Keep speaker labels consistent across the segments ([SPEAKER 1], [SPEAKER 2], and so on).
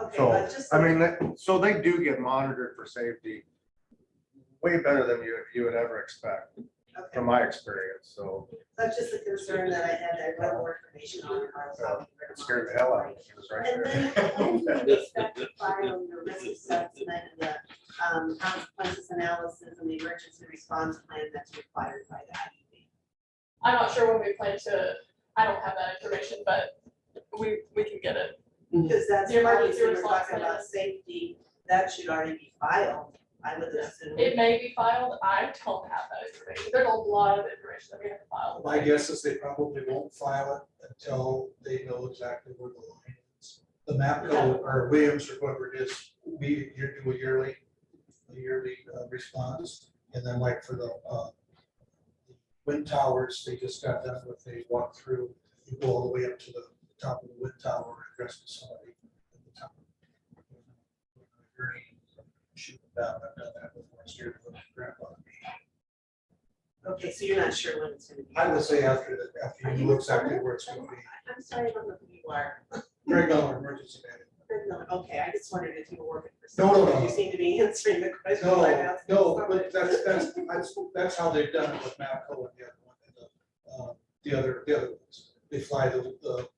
[SPEAKER 1] Okay,
[SPEAKER 2] So,
[SPEAKER 1] but just-
[SPEAKER 2] I mean, that- so they do get monitored for safety way better than you, you would ever expect,
[SPEAKER 1] Okay,
[SPEAKER 2] from my experience, so
[SPEAKER 1] that's just a concern that I had, I want more information on. it, I was talking to
[SPEAKER 2] Uh, it scared the hell out of me. It was right
[SPEAKER 1] And
[SPEAKER 2] there.
[SPEAKER 1] then, when do you expect to file your risk assessment, and the um, consequences analysis, and the emergency response plan that's required by the E IEP?
[SPEAKER 3] I'm not sure when we plan to, I don't have that information, but we, we can get it.
[SPEAKER 1] Because that's
[SPEAKER 3] The emergency
[SPEAKER 1] obviously, we're
[SPEAKER 3] response
[SPEAKER 1] talking about
[SPEAKER 3] plan.
[SPEAKER 1] safety, that should already be filed, I would assume.
[SPEAKER 3] It may be filed, I don't have that information, there's a lot of information that we have to file.
[SPEAKER 4] My guess is they probably won't file it until they know exactly where the line is. The MAPCO or Williams or whoever it is, we, you do a yearly, a yearly uh, response. And then like for the, uh, wind towers, they just got done with, they walked through, you go all the way up to the top of the wind tower, address to somebody at the top. Shoot them down, I've done that before, I scared the grandpa.
[SPEAKER 1] Okay, so you're not sure when it's gonna be.
[SPEAKER 4] I would say after, the- after you know exactly where it's gonna be.
[SPEAKER 1] I'm sorry, I don't know who you are.
[SPEAKER 4] Greg Miller, emergency management.
[SPEAKER 1] No, Okay, I just wondered if you were working for
[SPEAKER 4] No, no,
[SPEAKER 1] someone,
[SPEAKER 4] no,
[SPEAKER 1] you
[SPEAKER 4] no.
[SPEAKER 1] seem to be answering the question. I'm
[SPEAKER 4] No,
[SPEAKER 1] asking
[SPEAKER 4] no,
[SPEAKER 1] someone.
[SPEAKER 4] but that's, that's, that's, that's how they've done it with Mapco and the other one, and the, uh, the other, the other ones. They fly the, the,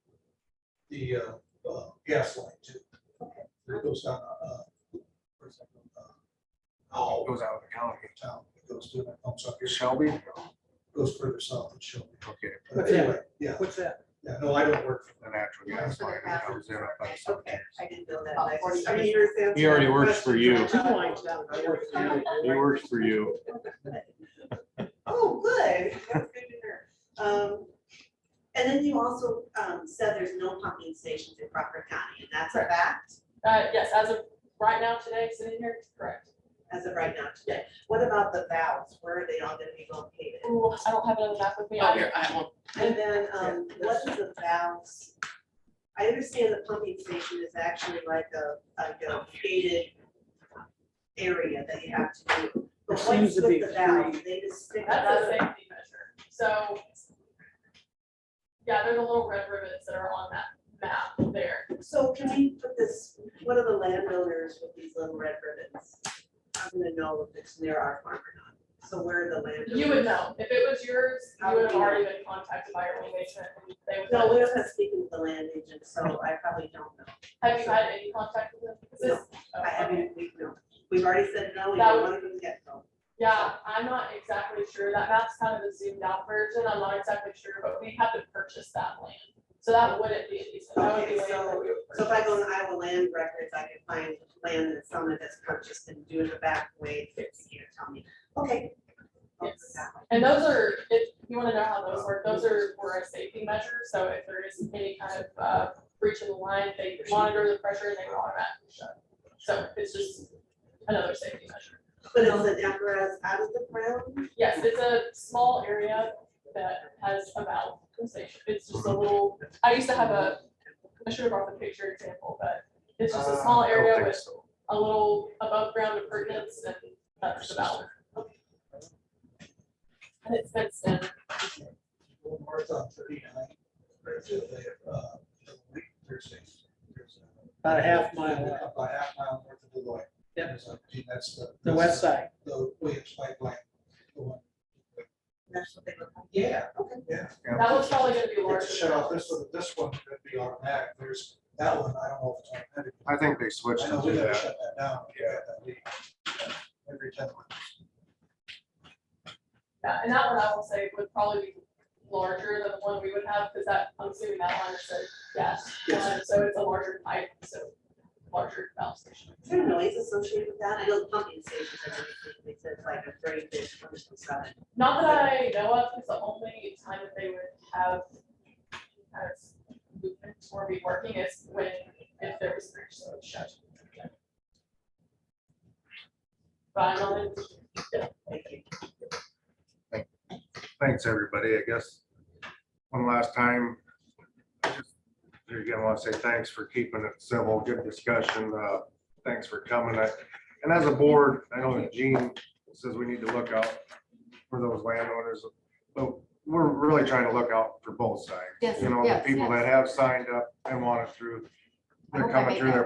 [SPEAKER 4] the, uh, uh, gas line too.
[SPEAKER 1] Okay.
[SPEAKER 4] It goes down, uh, where's that from? Uh, Oh,
[SPEAKER 2] Goes out of the county.
[SPEAKER 4] town, it goes to, that comes up here,
[SPEAKER 2] Shelby?
[SPEAKER 4] goes further south and Shelby.
[SPEAKER 2] Okay,
[SPEAKER 4] But anyway, yeah,
[SPEAKER 5] What's that?
[SPEAKER 4] yeah, no, I don't work for
[SPEAKER 2] the natural gas line that comes in up that side.
[SPEAKER 1] Okay, I didn't know that.
[SPEAKER 3] About
[SPEAKER 1] I just-
[SPEAKER 3] 40
[SPEAKER 1] I mean, you're answering
[SPEAKER 6] He already
[SPEAKER 1] the
[SPEAKER 6] works for
[SPEAKER 1] question.
[SPEAKER 6] you.
[SPEAKER 1] I'm not-
[SPEAKER 5] I work for you.
[SPEAKER 6] He works for you.
[SPEAKER 1] Oh, good. That's good to hear. Um, And then you also um, said there's no pumping stations in Crawford County, and that's a fact
[SPEAKER 3] Uh, yes, as of right now today, sitting here, correct.
[SPEAKER 1] as of right now today. What about the valves? Where are they all gonna be located?
[SPEAKER 3] Ooh, I don't have it on the map with me.
[SPEAKER 5] Oh, here, I won't.
[SPEAKER 1] And then, um, what is the valves? I understand the pumping station is actually like a, like a gated area that you have to do. But
[SPEAKER 5] There seems
[SPEAKER 1] what's
[SPEAKER 5] to
[SPEAKER 1] with
[SPEAKER 5] be
[SPEAKER 1] the valve? They just stick it
[SPEAKER 3] That's a
[SPEAKER 1] up.
[SPEAKER 3] safety measure, so. Yeah, there's a little red ribbons that are on that map there.
[SPEAKER 1] So can we put this, what are the landowners with these little red ribbons? I'm gonna know if it's near our farm or not. So where are the landowners?
[SPEAKER 3] You would know, if it was yours, you would have already been contacted by your lead agent, and they would.
[SPEAKER 1] No, we don't have speaking with the land agent, so I probably don't know.
[SPEAKER 3] Have you had any contact with them? Is this-
[SPEAKER 1] I
[SPEAKER 3] oh, okay.
[SPEAKER 1] haven't, we, no, we've already said no, we
[SPEAKER 3] That
[SPEAKER 1] don't
[SPEAKER 3] would-
[SPEAKER 1] want to get no.
[SPEAKER 3] Yeah, I'm not exactly sure. That map's kind of the zoomed out version. I'm not exactly sure, but we have to purchase that land. So that wouldn't be a decent, that would be
[SPEAKER 1] Okay,
[SPEAKER 3] land that we would
[SPEAKER 1] So if I go
[SPEAKER 3] purchase.
[SPEAKER 1] on Iowa land records, I can find land that someone has purchased and do it the back way, fifty years, tell me, okay. I'll do it that way.
[SPEAKER 3] And those are, if you wanna know how those work, those are, were a safety measure, so if there is any kind of, uh, breach of the line, they monitor the pressure and they automatically shut. So it's just another safety measure.
[SPEAKER 1] But it's an apparatus out of the ground,
[SPEAKER 3] Yes, it's a small area that has a valve station. It's just a little, I used to have a, I should have brought the picture example, but it's just
[SPEAKER 4] Ah,
[SPEAKER 3] a small
[SPEAKER 2] I don't
[SPEAKER 3] area
[SPEAKER 2] think
[SPEAKER 3] with
[SPEAKER 2] so.
[SPEAKER 3] a little above ground appurtenance and that's the valve. And it's fenced in.
[SPEAKER 4] Well, north on thirty-nine, there's a, uh, Thursday.
[SPEAKER 5] About a half mile away.
[SPEAKER 4] About a half mile north of Deloitte.
[SPEAKER 5] Yep.
[SPEAKER 4] There's a- That's the.
[SPEAKER 5] The west side.
[SPEAKER 4] The Williams pipeline. the one.
[SPEAKER 1] that's what they look like.
[SPEAKER 4] Yeah.
[SPEAKER 1] Okay.
[SPEAKER 4] Yeah.
[SPEAKER 3] That one's probably gonna be larger.
[SPEAKER 4] It's shut off, this one, this one could be automatic, there's, that one, I don't know if it's automatic.
[SPEAKER 2] I think they switched
[SPEAKER 4] I
[SPEAKER 2] to
[SPEAKER 4] know we
[SPEAKER 2] do
[SPEAKER 4] gotta
[SPEAKER 2] that.
[SPEAKER 4] shut that down. we had that leak, uh, Every ten months.
[SPEAKER 3] Yeah, and that one I will say would probably be larger than the one we would have, because that, I'm assuming that line is a gas.
[SPEAKER 4] Yes.
[SPEAKER 3] line, So it's a larger pipe, so larger valve station.
[SPEAKER 1] Is there noise associated with that? I know the pumping stations and everything, they said it's like a very big commercial side.
[SPEAKER 3] Not that I know of, it's the only time that they would have kind of movement or be working is when, if there was a breach, so it's shut. But I know that
[SPEAKER 1] Thank you.
[SPEAKER 2] Thanks, everybody. I guess one last time. I just Again, want to say thanks for keeping it civil, good discussion. Uh, Thanks for coming. I- And as a board, I know that Gene says we need to look out for those landowners. But we're really trying to look out for both sides.
[SPEAKER 7] Yes,
[SPEAKER 2] You know, the
[SPEAKER 7] yes,
[SPEAKER 2] people
[SPEAKER 7] yes.
[SPEAKER 2] that have signed up and want it through,
[SPEAKER 7] I
[SPEAKER 2] they're
[SPEAKER 7] hope I
[SPEAKER 2] coming
[SPEAKER 7] made
[SPEAKER 2] through
[SPEAKER 7] that
[SPEAKER 2] their